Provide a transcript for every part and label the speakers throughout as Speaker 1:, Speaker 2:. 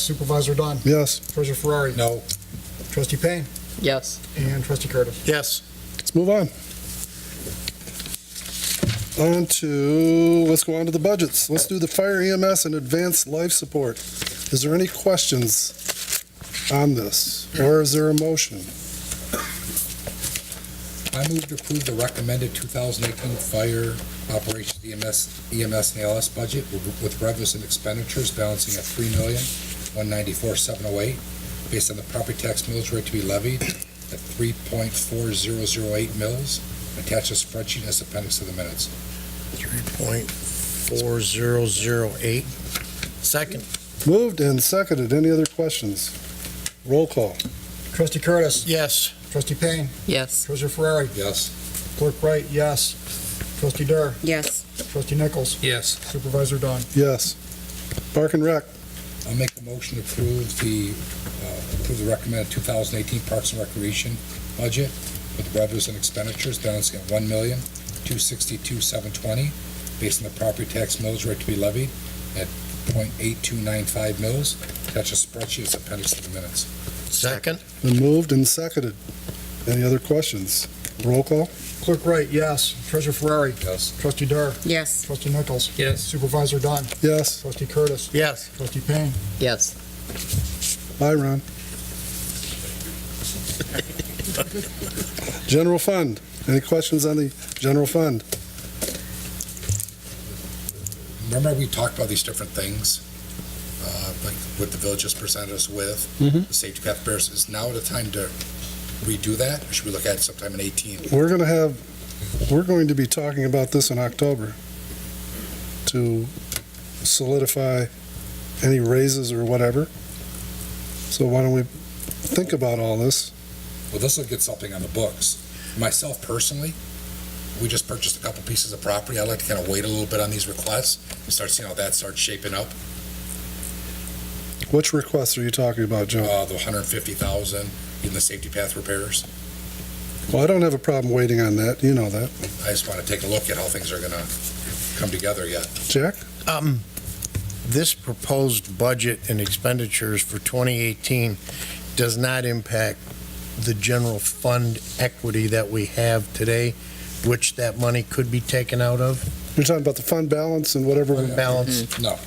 Speaker 1: Supervisor Dunn.
Speaker 2: Yes.
Speaker 1: Treasurer Ferrari.
Speaker 3: No.
Speaker 1: Trustee Payne.
Speaker 4: Yes.
Speaker 1: And Trustee Curtis.
Speaker 3: Yes.
Speaker 2: Let's move on. On to, let's go on to the budgets. Let's do the fire EMS and advanced life support. Is there any questions on this? Or is there a motion?
Speaker 3: I move to approve the recommended 2018 fire operations E EMS, EMS and ALS budget with with revenues and expenditures balancing at three million one ninety four seven oh eight, based on the property tax mills rate to be levied at 3.4008 mils. Attached a spreadsheet as appendix to the minutes.
Speaker 5: 3.4008. Second?
Speaker 2: Moved and seconded. Any other questions? Roll call.
Speaker 1: Trustee Curtis.
Speaker 5: Yes.
Speaker 1: Trustee Payne.
Speaker 4: Yes.
Speaker 1: Treasurer Ferrari.
Speaker 3: Yes.
Speaker 1: Clerk Wright, yes. Trustee Dur.
Speaker 6: yes,
Speaker 1: Trustee Nichols.
Speaker 3: Yes.
Speaker 1: Supervisor Dunn.
Speaker 2: Yes. Park and Rec,
Speaker 3: I'll make a motion to approve the, uh, approve the recommended 2018 Parks and Recreation budget with revenues and expenditures balancing at $1,262,720, based on the property tax mills rate to be levied at .8295 mills. Attach a spreadsheet as appendix to the minutes.
Speaker 5: Second?
Speaker 2: been moved and seconded. Any other questions? Roll call.
Speaker 1: Clerk Wright, yes. Treasurer Ferrari.
Speaker 3: Yes.
Speaker 1: Trustee Dur.
Speaker 6: yes,
Speaker 1: Trustee Nichols.
Speaker 5: Yes.
Speaker 1: Supervisor Dunn.
Speaker 2: Yes.
Speaker 1: Trustee Curtis.
Speaker 5: Yes.
Speaker 1: Trustee Payne.
Speaker 4: Yes.
Speaker 2: Bye, Ron. General Fund. Any questions on the general fund?
Speaker 3: Remember, we talked about these different things, uh, like what the village just presented us with,
Speaker 2: Mhm.
Speaker 3: the safety path bears. Is now the time to redo that, or should we look at it sometime in 18?
Speaker 2: We're going to have, we're going to be talking about this in October to solidify any raises or whatever. So why don't we think about all this?
Speaker 3: well, this will get something on the books. Myself personally, we just purchased a couple pieces of property. I'd like to kind of wait a little bit on these requests and start seeing how that starts shaping up.
Speaker 2: Which requests are you talking about, Joe?
Speaker 3: Uh, the 150,000, even the safety path repairs.
Speaker 2: Well, I don't have a problem waiting on that. You know that.
Speaker 3: I just want to take a look at how things are going to come together yet.
Speaker 2: Jack?
Speaker 5: Um, this proposed budget and expenditures for 2018 does not impact the general fund equity that we have today, which that money could be taken out of,
Speaker 2: You're talking about the fund balance and whatever. we-
Speaker 5: balance.
Speaker 3: No.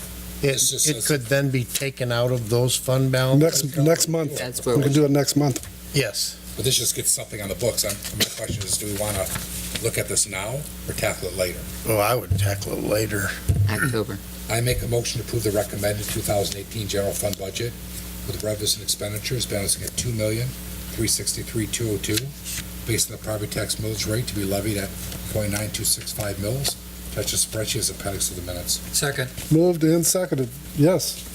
Speaker 5: It,
Speaker 3: It's just
Speaker 5: it
Speaker 3: as-
Speaker 5: could then be taken out of those fund balances?
Speaker 2: Next, next month.
Speaker 4: That's where
Speaker 2: We can
Speaker 4: we,
Speaker 2: do it next month.
Speaker 5: Yes.
Speaker 3: But this just gets something on the books. I'm, my question is, do we want to look at this now or tackle it later?
Speaker 5: Oh, I would tackle it later.
Speaker 4: October.
Speaker 3: I make a motion to approve the recommended 2018 general fund budget with revenues and expenditures balancing at $2,363,202, based on the property tax millage rate to be levied at .9265 mils. Attached a spreadsheet as appendix to the minutes.
Speaker 4: Second.
Speaker 2: Moved and seconded, yes,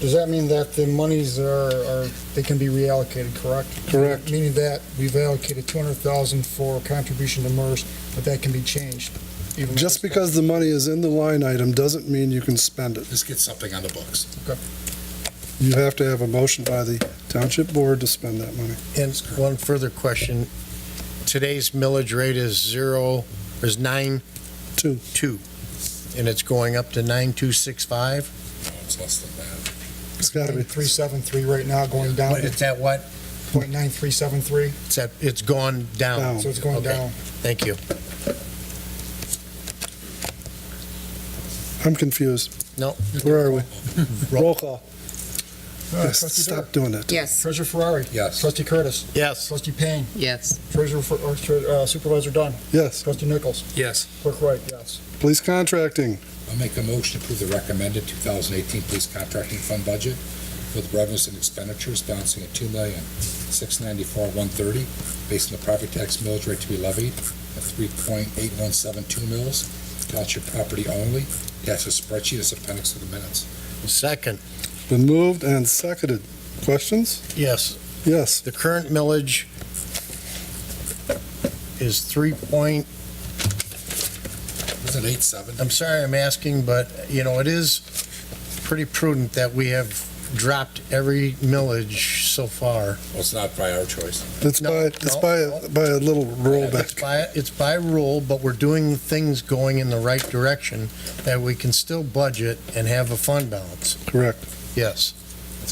Speaker 1: Does that mean that the monies are, are, they can be reallocated, correct?
Speaker 2: correct.
Speaker 1: Meaning that we've allocated 200,000 for contribution to MERS, but that can be changed. even with
Speaker 2: Just
Speaker 1: this-
Speaker 2: because the money is in the line item doesn't mean you can spend it.
Speaker 3: This gets something on the books.
Speaker 2: You have to have a motion by the township board to spend that money.
Speaker 5: And one further question. Today's millage rate is zero, is nine?
Speaker 2: Two.
Speaker 5: Two. And it's going up to 9265?
Speaker 3: No, It's less than that.
Speaker 2: It's gotta be,
Speaker 1: 373 right now, going down
Speaker 5: What,
Speaker 1: to
Speaker 5: is that what?
Speaker 1: .9373,
Speaker 5: It's at, it's gone down.
Speaker 2: Down.
Speaker 1: so it's going
Speaker 5: Oh, Okay,
Speaker 1: down.
Speaker 5: Thank you.
Speaker 2: I'm confused.
Speaker 5: No.
Speaker 2: Where are we? Roll call.
Speaker 1: All right, Trustee Dur.
Speaker 2: Stop doing that.
Speaker 6: yes,
Speaker 1: Treasurer Ferrari.
Speaker 3: Yes.
Speaker 1: Trustee Curtis.
Speaker 5: Yes.
Speaker 1: Trustee Payne.
Speaker 4: Yes.
Speaker 1: Treasurer, Fer- or Tre- uh, Supervisor Dunn.
Speaker 2: Yes,
Speaker 1: Trustee Nichols.
Speaker 4: Yes.
Speaker 1: Clerk Wright, yes.
Speaker 2: police contracting,
Speaker 3: I make a motion to approve the recommended 2018 police contracting fund budget with revenues and expenditures balancing at $2,694,130, based on the property tax millage rate to be levied at 3.8172 mils, township property only, attached to spreadsheet as appendix to the minutes.
Speaker 5: Second,
Speaker 2: been moved and seconded. Questions?
Speaker 5: yes.
Speaker 2: Yes,
Speaker 5: The current millage is 3 point,
Speaker 3: Isn't it 8.7?
Speaker 5: I'm sorry I'm asking, but, you know, it is pretty prudent that we have dropped every millage so far.
Speaker 3: Well, it's not by our choice.
Speaker 2: it's
Speaker 5: No,
Speaker 2: by, it's
Speaker 5: no,
Speaker 2: by,
Speaker 5: no.
Speaker 2: a- by a little
Speaker 5: It's
Speaker 2: rollback.
Speaker 5: by, it's by rule, but we're doing things going in the right direction that we can still budget and have a fund balance.
Speaker 2: Correct.
Speaker 5: Yes.